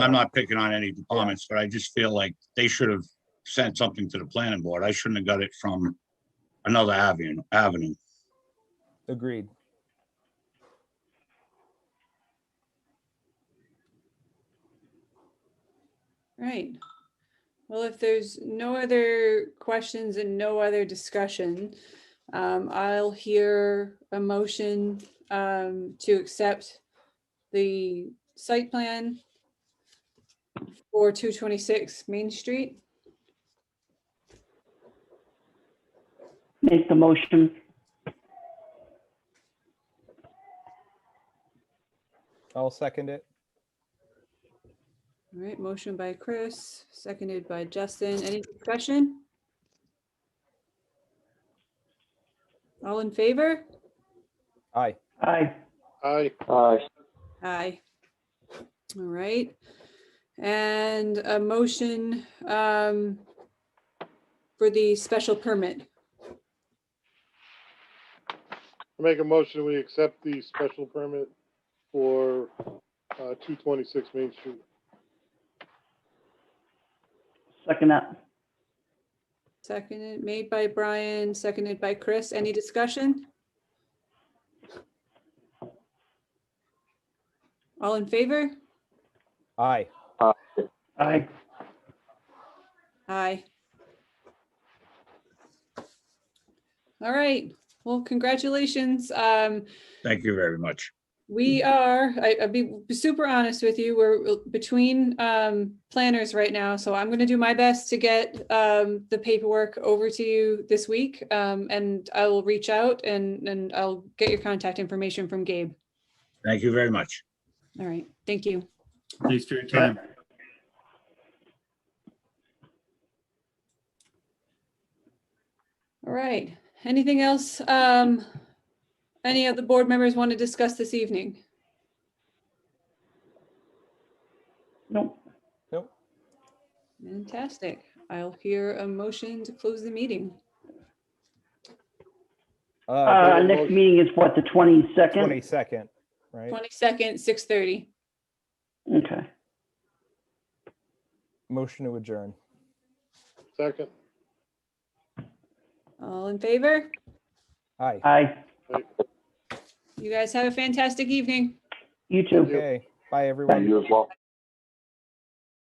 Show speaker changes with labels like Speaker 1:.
Speaker 1: I'm not picking on any departments, but I just feel like they should have sent something to the planning board. I shouldn't have got it from another avenue, avenue.
Speaker 2: Agreed.
Speaker 3: Right. Well, if there's no other questions and no other discussion, um, I'll hear a motion um, to accept the site plan for 226 Main Street.
Speaker 4: Make the motion.
Speaker 2: I'll second it.
Speaker 3: All right, motion by Chris, seconded by Justin. Any discussion? All in favor?
Speaker 2: Aye.
Speaker 4: Aye.
Speaker 5: Aye.
Speaker 6: Aye.
Speaker 3: Aye. All right. And a motion um, for the special permit.
Speaker 5: I Make a motion, we accept the special permit for uh, 226 Main Street.
Speaker 4: Second that.
Speaker 3: Seconded, made by Brian, seconded by Chris. Any discussion? All in favor?
Speaker 2: Aye.
Speaker 4: Aye.
Speaker 3: Aye. All right. Well, congratulations. Um,
Speaker 1: Thank you very much.
Speaker 3: We are, I, I'll be super honest with you, we're uh, between, um, planners right now, so I'm gonna do my best to get, um, the paperwork over to you this week, um, and I will reach out and, and I'll get your contact information from Gabe.
Speaker 1: Thank you very much.
Speaker 3: All right, thank you.
Speaker 7: Thanks for your time.
Speaker 3: All right, anything else, um, any of the board members want to discuss this evening?
Speaker 4: Nope.
Speaker 2: Nope.
Speaker 3: Fantastic. I'll hear a motion to close the meeting.
Speaker 2: Uh,
Speaker 4: Uh, next meeting is what, the twenty-second?
Speaker 2: twenty-second, right?
Speaker 3: Twenty-second, six thirty.
Speaker 4: Okay.
Speaker 2: Motion to adjourn.
Speaker 5: Second.
Speaker 3: All in favor?
Speaker 2: Aye.
Speaker 4: Aye.
Speaker 3: You guys have a fantastic evening.
Speaker 4: You too.
Speaker 2: Okay. Bye, everyone.
Speaker 6: You as well.